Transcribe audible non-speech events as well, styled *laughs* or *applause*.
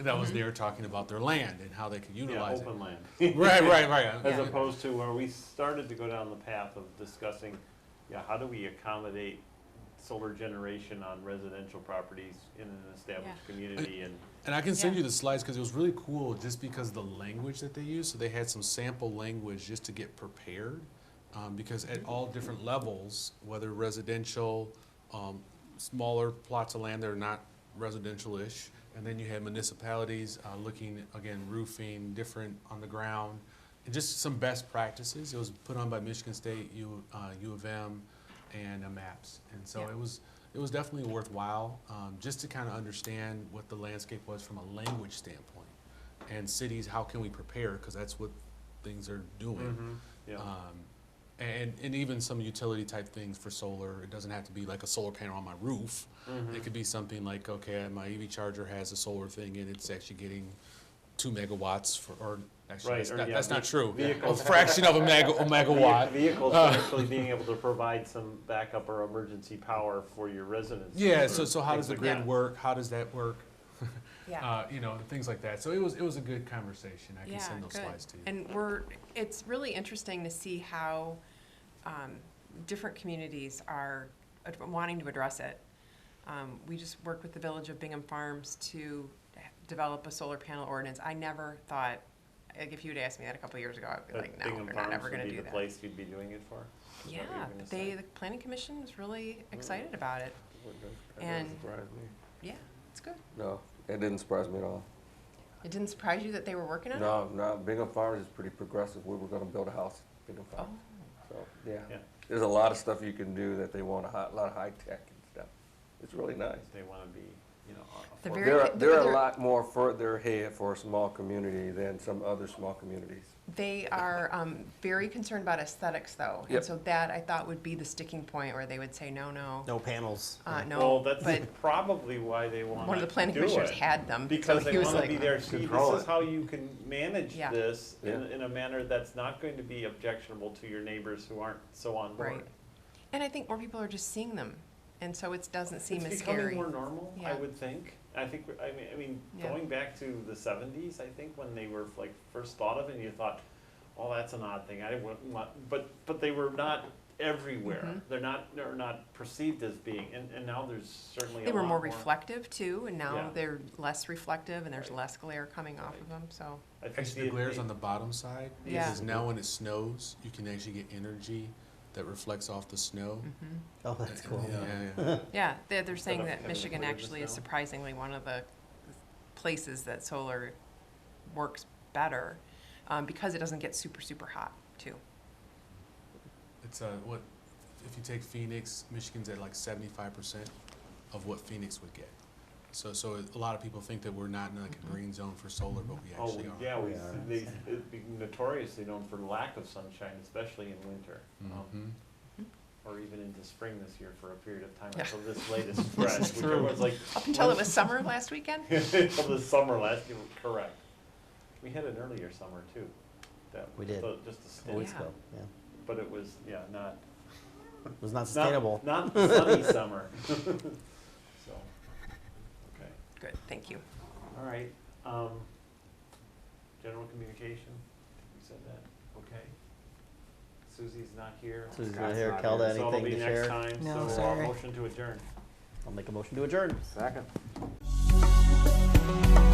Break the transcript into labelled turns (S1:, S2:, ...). S1: that was there talking about their land and how they could
S2: Yeah,
S1: utilize it.
S2: open land.
S1: *laughs* Right, right, right.
S2: *laughs* As
S1: yeah.
S2: opposed to where we started to go down the path of discussing, yeah, how do we accommodate solar generation on residential properties in an established community and,
S1: And I can send
S3: Yeah.
S1: you the slides because it was really cool just because of the language that they used. So they had some sample language just to get prepared. Um, because at all different levels, whether residential, um, smaller plots of land that are not residential-ish, and then you had municipalities, uh, looking, again, roofing, different on the ground, and just some best practices. It was put on by Michigan State, U, uh, U of M, and uh, MAPS. And so
S3: Yeah.
S1: it was, it was definitely worthwhile, um, just to kind of understand what the landscape was from a language standpoint. And cities, how can we prepare, because that's what things are
S2: Mm-hmm.
S1: doing.
S2: yeah.
S1: Um, and, and even some utility type things for solar. It doesn't have to be like a solar panel on my roof.
S2: Mm-hmm.
S1: It could be something like, okay, my EV charger has a solar thing and it's actually getting two megawatts for, or actually,
S2: Right,
S1: that's,
S2: or
S1: not,
S2: yeah,
S1: that's not
S2: ve-
S1: true. A
S2: vehicles.
S1: fraction of a, mega,
S2: *laughs*
S1: a megawatt.
S2: Vehi- Vehicles are
S1: Uh, *laughs*
S2: actually being able to provide some backup or emergency power for your residents.
S1: Yeah, so,
S2: or
S1: so how
S2: things
S1: does the
S2: like
S1: grid
S2: that.
S1: work? How does that work?
S3: Yeah.
S1: Uh, you know, and things like that. So it was, it was a good conversation. I can
S3: Yeah,
S1: send those
S3: good.
S1: slides to you.
S3: And we're, it's really interesting to see how um, different communities are ad- wanting to address it. Um, We just worked with the Village of Bingham Farms to develop a solar panel ordinance. I never thought, like, if you'd asked me that a couple years ago, I'd be
S2: But
S3: like, no,
S2: Bingham
S3: they're
S2: Farms
S3: not ever
S2: would
S3: gonna
S2: be
S3: do
S2: The
S3: that.
S2: place you'd be doing it for? Is that what you're
S3: Yeah,
S2: gonna
S3: but
S2: say? Mm.
S3: they, the planning commission was really excited about it. And-
S4: surprise me.
S3: Yeah, it's good.
S4: No, it didn't surprise me at all.
S3: It didn't surprise you that they were working on it?
S4: No, no, Bingham Farms is pretty progressive. We were gonna build a house in Bingham
S3: Oh,
S4: Farms. So, yeah.
S2: Yeah.
S4: There's a lot of stuff you can do that they want, a hi- lot of high tech and stuff. It's really nice.
S2: They want to be, you know, a-
S3: The
S2: affordable.
S3: very-
S4: They're,
S3: the-
S4: they're a
S3: they're-
S4: lot more further ahead for a small community than some other small communities.
S3: They are um, very concerned about aesthetics, though. And
S4: Yep.
S3: so that, I thought, would be the sticking point where they would say, no, no,
S5: No panels.
S3: uh,
S2: Well,
S3: no.
S2: that's
S3: But
S2: probably why they want to do it.
S3: one of the planning commissioners had them. so
S2: Because
S3: he
S2: they
S3: was
S2: want to
S3: like,
S2: be there, see,
S4: Control
S2: this is
S4: it.
S2: how you can manage
S3: Yeah.
S2: this in,
S4: Yeah.
S2: in a manner that's not going to be objectionable to your neighbors who aren't so on board.
S3: Right. And I think more people are just seeing them. And so it doesn't seem as
S2: It's
S3: scary.
S2: becoming more normal, I
S3: Yeah.
S2: would think. I think, we're- I mean, I mean,
S3: Yeah.
S2: going back to the seventies, I think, when they were like first thought of and you thought, oh, that's an odd thing, I didn't want- want, but, but they were not
S3: Mm-hmm.
S2: everywhere. They're not, they're not perceived as being, and, and now there's certainly
S3: They
S2: a
S3: were
S2: lot
S3: more reflective, too, and
S2: Yeah.
S3: now they're less reflective, and there's
S2: Right.
S3: less glare coming off of them, so.
S2: I think
S1: Actually, the glare's on the bottom side,
S3: Yeah.
S1: because now when it snows, you can actually get energy that reflects off the snow.
S5: Oh, that's cool.
S1: Yeah,
S5: *laughs*
S1: yeah.
S3: mm-hmm. Yeah, they're, they're saying
S2: enough
S3: that
S2: heavily
S3: Michigan
S2: weighted
S3: actually is
S2: snow?
S3: surprisingly one of the places that solar works better, um, because it doesn't get super, super hot, too.
S1: It's, uh, what, if you take Phoenix, Michigan's at like seventy-five percent of what Phoenix would get. So, so a lot of people think that we're not in like a green zone for solar, but we
S2: Oh,
S1: actually are.
S2: yeah, we,
S5: We are.
S2: they, it'd be notoriously known for lack of sunshine, especially in winter. um,
S1: Mhm.
S2: Or even into spring this year for a period of time
S3: Yeah.
S2: until this latest spread, which
S1: true.
S2: everyone's like. *laughs*
S3: Up until it was summer last weekend?
S2: Until the summer last, year, correct. We had an earlier summer too. that
S5: We
S2: was
S5: did.
S2: a- Just a
S5: A week
S2: stint,
S3: Yeah.
S5: ago, yeah.
S2: but it was, yeah, not.
S5: It was not
S2: not-
S5: sustainable.
S2: Not the sunny summer. *laughs* So, okay,
S3: Good, thank you.
S2: all right. um, General communication, we said that, okay. Susie's not here.
S5: Susie's not
S2: Scott's
S5: here. Kelda,
S2: So it'll
S5: anything
S2: be
S5: to
S2: next
S5: share?
S2: time,
S6: No,
S2: so uh,
S6: sorry.
S2: motion to adjourn.
S5: I'll make a motion to adjourn.
S4: Second.